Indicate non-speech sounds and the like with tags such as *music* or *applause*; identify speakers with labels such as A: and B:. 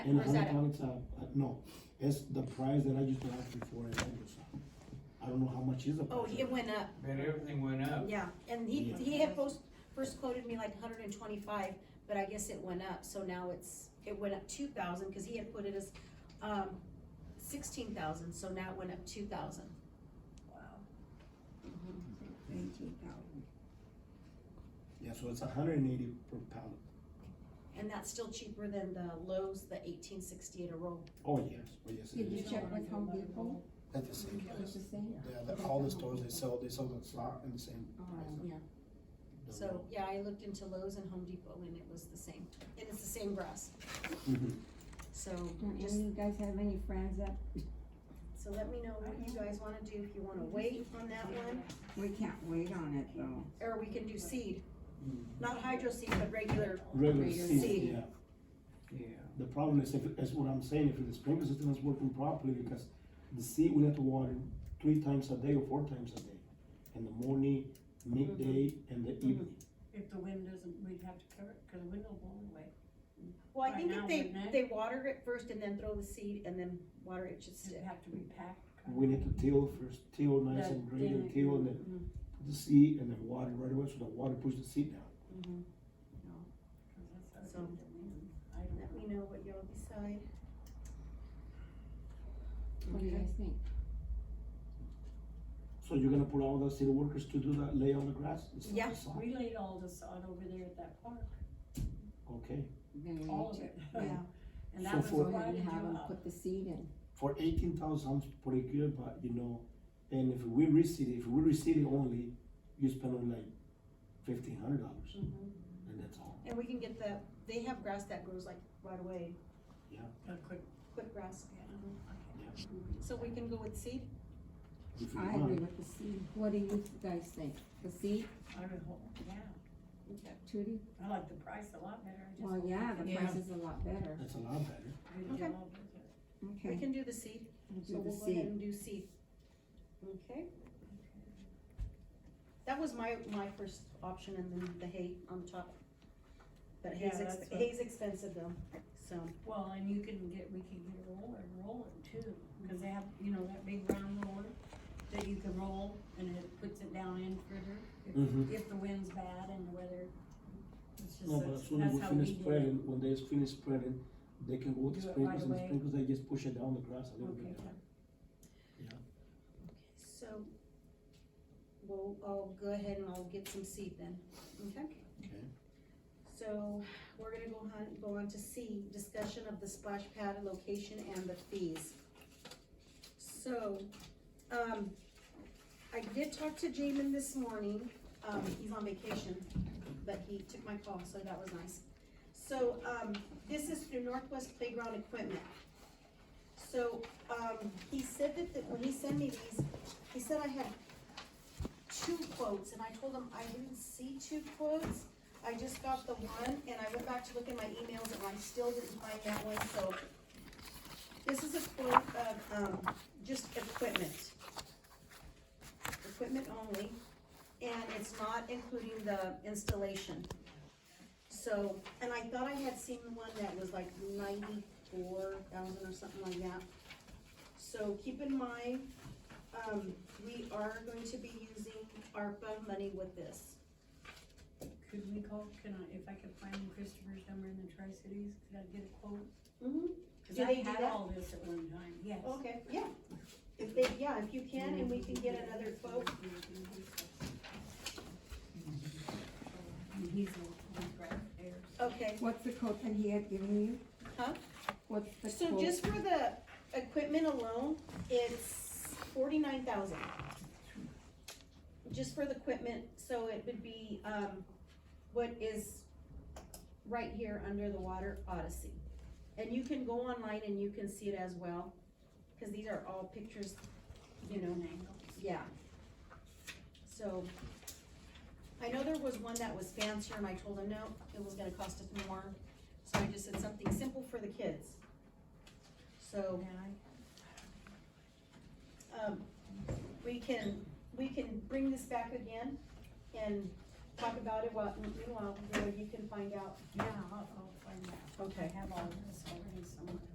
A: And
B: Or is that it?
A: now it's a, uh, no, it's the price that I used to have before it was, I don't know how much is the price.
B: Oh, it went up,
C: But everything went up.
B: yeah, and he,
A: Yeah.
B: he had first, first quoted me like hundred and twenty-five, but I guess it went up, so now it's, it went up two thousand, cause he had put it as, um, sixteen thousand, so now it went up two thousand.
D: Nineteen thousand.
A: Yeah, so it's a hundred and eighty per pallet,
B: And that's still cheaper than the Lowe's, the eighteen sixty-eight a roll.
A: oh, yes, oh, yes, it
D: Did you
A: is,
D: check with Home Depot?
A: that's the same
D: It was
A: price.
D: the same?
A: Yeah, the- all the stores, they sell, they sell the slot and the same
D: Oh,
A: price.
D: yeah.
A: The
B: So, yeah, I looked into Lowe's and Home Depot and it was the same, and it's the same grass,
A: roll. Mhm.
B: so
D: Don't any of
B: just,
D: you guys have any friends that,
B: so let me know what you guys wanna do, if you wanna wait on that one,
D: we can't wait on it though.
B: or we can do seed. Not hydro seed, but regular
A: Regular
D: Regular
A: seed,
B: seed.
A: yeah,
C: Yeah.
A: the problem is, if, is what I'm saying, if the sprinkler system is working properly, because the seed we have to water three times a day or four times a day, in the morning, midday,
B: Mm-hmm.
A: and the evening.
E: If the wind doesn't, we'd have to cover it, cause the wind will blow away.
B: Well, I
E: Right
B: think
E: now,
B: if they,
E: wouldn't it?
B: they water it first and then throw the seed and then water it, it should
E: It'd
B: stick.
E: have to be packed.
A: We need to till first, till nice
E: Yeah,
A: and green, and
E: till
A: till, and then put the seed, and then water right away, so the water pushes the seed down.
E: Mm-hmm.
B: Mhm.
E: Cause that's
B: So-
E: how it did the wind. I don't
B: Let
E: know.
B: me know what y'all decide.
D: What do you guys think?
A: So you're gonna put all the city workers to do that, lay on the grass? It's not
B: Yeah,
A: the sod.
E: We laid all this on over there at that park,
A: Okay,
D: Then we
E: all
D: need
E: of
D: to-
E: it.
B: Yeah.
E: *laughs* And
A: So
E: that was
A: for-
D: Go
E: why
D: ahead
E: did
D: and have
E: you
D: them
E: up?
D: put the seed in.
A: for eighteen thousand sounds pretty good, but you know, and if we reseed it, if we reseed it only, you spend only like fifteen hundred dollars,
E: Mm-hmm.
A: and that's all.
B: And we can get the, they have grass that grows like right away,
E: A quick-
B: quick grass. Mhm.
A: Yeah.
B: So we can go with seed?
A: If you
D: I agree
A: want,
D: with the seed. What do you guys think? The seed,
E: I would hope, yeah,
B: Okay.
D: Trudy?
E: I like the price a lot better. I just
D: Well,
E: hope
D: yeah,
E: we
D: the
E: can
D: price is a lot better.
A: that's a lot better.
E: do the
B: Okay.
E: job with it.
B: We
D: Okay,
B: can do the seed,
D: we'll
B: so
D: do the
B: we'll go ahead
D: seed.
B: and do seed. Okay? That was my, my first option and then the hay on top. But hay's,
E: Yeah,
B: ex-
E: that's what-
B: hay's expensive though, so.
E: Well, and you can get, we can get a roller, and roll it too, cause they have, you know, that big round roller that you can roll and it puts it down in
A: Mhm.
E: further, if, if the wind's bad and the weather. It's just,
A: No, but as
E: that's
A: soon as
E: that's
A: we
E: how we
A: finish
E: did it.
A: spreading, when they finish spreading, they can go with the
E: Do it right
A: sprinklers, and the
E: away.
A: sprinklers, they just push it down the grass a little
E: Okay,
A: bit.
B: So, we'll, I'll go ahead and I'll get some seed then, okay?
A: Okay.
B: So, we're gonna go on, go on to C, discussion of the splash pad location and the fees. So, um, I did talk to Jamin this morning, um, he's on vacation, but he took my call, so that was nice. So, um, this is through Northwest Playground Equipment. So, um, he said that, that when he sent me these, he said I had two quotes, and I told him I didn't see two quotes. I just got the one, and I went back to look in my emails, and I still didn't find that one, so. This is a quote of, um, just equipment. Equipment only, and it's not including the installation. So, and I thought I had seen one that was like ninety-four thousand or something like that. So keep in mind, um, we are going to be using ARPA money with this.
E: Could we call, can I, if I could find Christopher's number in the Tri-Cities, could I get a quote?
B: Mm-hmm.
E: Cause
B: Do
E: I
B: they do
E: had
B: that?
E: all this at one time, yes.
B: Okay, yeah. If they, yeah, if you can, and we can get another quote.
E: And he's, he's right there.
B: Okay,
D: What's the quote that he had given you?
B: Huh?
D: What's the
B: so
D: quote?
B: just for the equipment alone, it's forty-nine thousand. Just for the equipment, so it would be, um, what is right here under the water Odyssey. And you can go online and you can see it as well, cause these are all pictures, you know, Yeah. So, I know there was one that was fancier and I told him, no, it was gonna cost us more, so I just said something simple for the kids. So, um, we can, we can bring this back again and talk about it while, meanwhile, you know, you can find out
E: Yeah, I'll, I'll find out.
B: Okay.
E: I have all this already somewhere.